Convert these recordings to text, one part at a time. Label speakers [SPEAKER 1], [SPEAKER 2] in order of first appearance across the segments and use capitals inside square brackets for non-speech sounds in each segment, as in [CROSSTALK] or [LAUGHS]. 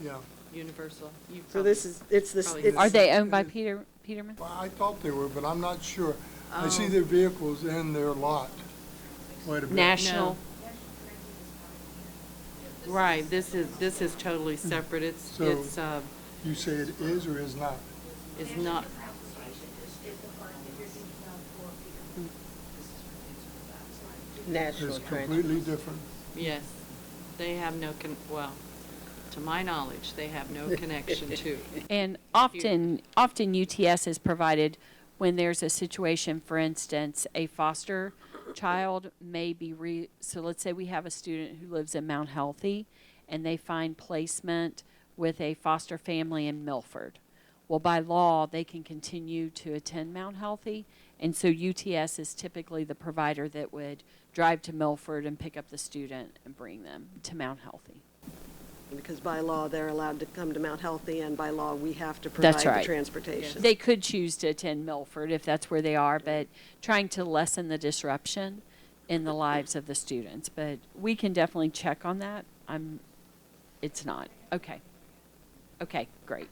[SPEAKER 1] Yeah,
[SPEAKER 2] Universal. you
[SPEAKER 3] So this
[SPEAKER 2] probably-
[SPEAKER 3] is, it's this,
[SPEAKER 2] Probably
[SPEAKER 3] it's.
[SPEAKER 2] not.
[SPEAKER 4] Are they owned by Peter, Peterman?
[SPEAKER 1] well, I thought they were, but I'm not sure. I see
[SPEAKER 2] Oh.
[SPEAKER 1] their vehicles in their lot quite a bit.
[SPEAKER 2] National.
[SPEAKER 4] National?
[SPEAKER 2] Right, this is, this is totally separate. It's,
[SPEAKER 1] So-
[SPEAKER 2] it's, uh,
[SPEAKER 1] You say it is or is not?
[SPEAKER 2] it's not,
[SPEAKER 3] National
[SPEAKER 1] It's
[SPEAKER 3] Transit.
[SPEAKER 1] completely different.
[SPEAKER 2] yes. They have no, con. well, to my knowledge, they have no connection
[SPEAKER 3] [LAUGHS]
[SPEAKER 2] to.
[SPEAKER 4] And often, often UTS is provided when there's a situation, for instance, a foster child may be re, so let's say we have a student who lives in Mount Healthy and they find placement with a foster family in Milford. Well, by law, they can continue to attend Mount Healthy. And so UTS is typically the provider that would drive to Milford and pick up the student and bring them to Mount Healthy.
[SPEAKER 3] Because by law, they're allowed to come to Mount Healthy, and by law, we have to provide
[SPEAKER 4] That's
[SPEAKER 3] the
[SPEAKER 4] right.
[SPEAKER 3] transportation.
[SPEAKER 4] They could choose to attend Milford if that's where they are, but trying to lessen the disruption in the lives of the students. But we can definitely check on that. I'm, it's not. Okay. Okay, great.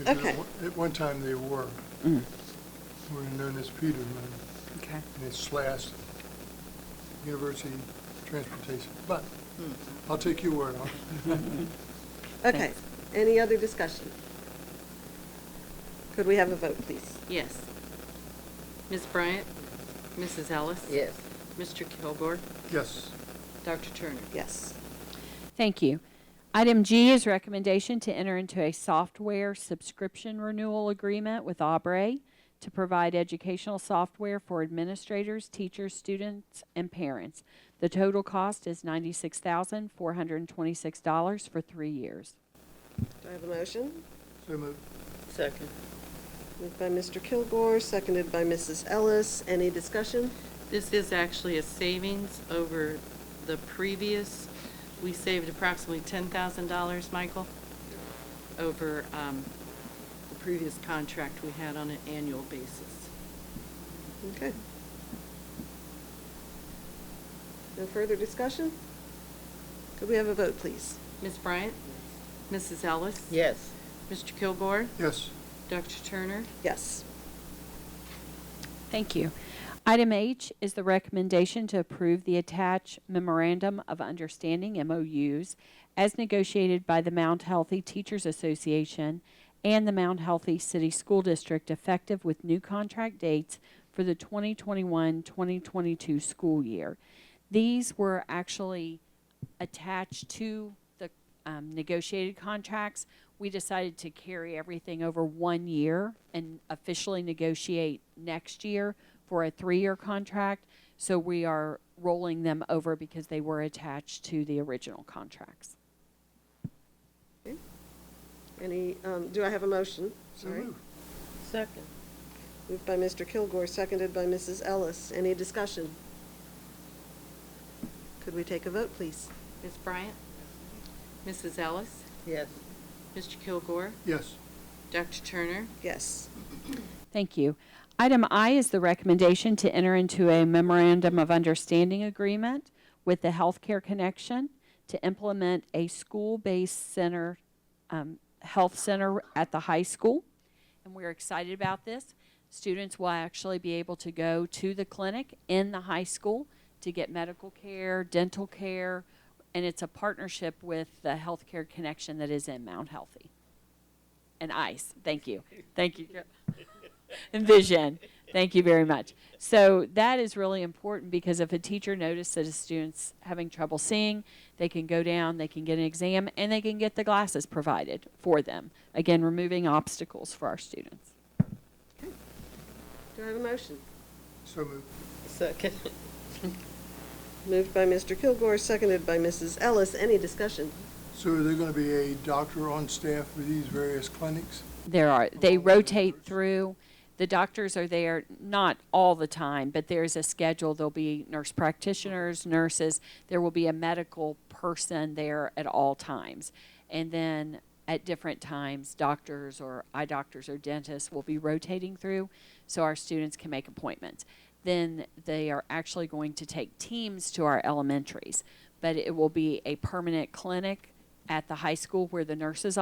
[SPEAKER 1] If at
[SPEAKER 3] Okay.
[SPEAKER 1] one- At one time they were.
[SPEAKER 4] Mm.
[SPEAKER 1] Were known as Peterman,
[SPEAKER 4] Okay.
[SPEAKER 1] and it's slash University Transportation. But I'll take your word on it.
[SPEAKER 3] Okay, any other discussion? Could we have a vote, please?
[SPEAKER 2] Yes. Ms. Bryant? Mrs. Ellis?
[SPEAKER 3] Yes.
[SPEAKER 2] Mr. Kilgore?
[SPEAKER 1] Yes,
[SPEAKER 2] Dr. Turner?
[SPEAKER 3] Yes.
[SPEAKER 4] Thank you. Item G is recommendation to enter into a software subscription renewal agreement with Aubrey to provide educational software for administrators, teachers, students, and parents. The total cost is $96,426 for three years.
[SPEAKER 3] Do I have a motion?
[SPEAKER 1] so moved.
[SPEAKER 5] Second.
[SPEAKER 3] Moved by Mr. Kilgore, seconded by Mrs. Ellis. Any discussion?
[SPEAKER 2] This is actually a savings over the previous. We saved approximately $10,000, Michael, over um, the previous contract we had on an annual basis.
[SPEAKER 3] Okay. No further discussion? Could we have a vote, please?
[SPEAKER 2] Ms. Bryant? Mrs. Ellis?
[SPEAKER 5] Yes.
[SPEAKER 2] Mr. Kilgore?
[SPEAKER 1] Yes,
[SPEAKER 2] Dr. Turner?
[SPEAKER 3] Yes.
[SPEAKER 4] Thank you. Item H is the recommendation to approve the attached memorandum of understanding MOUs as negotiated by the Mount Healthy Teachers Association and the Mount Healthy City School District effective with new contract dates for the 2021-2022 school year. These were actually attached to the um, negotiated contracts, we decided to carry everything over one year and officially negotiate next year for a three-year contract. So we are rolling them over because they were attached to the original contracts.
[SPEAKER 3] Any, um, do I have a motion?
[SPEAKER 1] so
[SPEAKER 3] Sorry.
[SPEAKER 1] moved.
[SPEAKER 5] Second.
[SPEAKER 3] Moved by Mr. Kilgore, seconded by Mrs. Ellis. Any discussion? Could we take a vote, please?
[SPEAKER 2] Ms. Bryant? Mrs. Ellis?
[SPEAKER 5] Yes.
[SPEAKER 2] Mr. Kilgore?
[SPEAKER 1] Yes,
[SPEAKER 2] Dr. Turner?
[SPEAKER 3] Yes.
[SPEAKER 4] Thank you. Item I is the recommendation to enter into a memorandum of understanding agreement with the Healthcare Connection to implement a school-based center, um, health center at the high school. And we're excited about this. Students will actually be able to go to the clinic in the high school to get medical care, dental care, and it's a partnership with the Healthcare Connection that is in Mount Healthy. And ICE, thank you. Thank you. And vision. Thank you very much. So that is really important because if a teacher notices that a student's having trouble seeing, they can go down, they can get an exam, and they can get the glasses provided for them. Again, removing obstacles for our students.
[SPEAKER 3] Do I have a motion?
[SPEAKER 1] so moved.
[SPEAKER 5] Second.
[SPEAKER 3] Moved by Mr. Kilgore, seconded by Mrs. Ellis. Any discussion?
[SPEAKER 1] So is there going to be a doctor on staff for these various clinics?
[SPEAKER 4] There are, they
[SPEAKER 1] Along with the
[SPEAKER 4] rotate
[SPEAKER 1] nurse.
[SPEAKER 4] through. The doctors are there, not all the time, but there's a schedule. There'll be nurse practitioners, nurses. There will be a medical person there at all times. And then at different times, doctors or eye doctors or dentists will be rotating through so our students can make appointments. Then they are actually going to take teams to our elementaries, but it will be a permanent clinic at the high school where the nurses'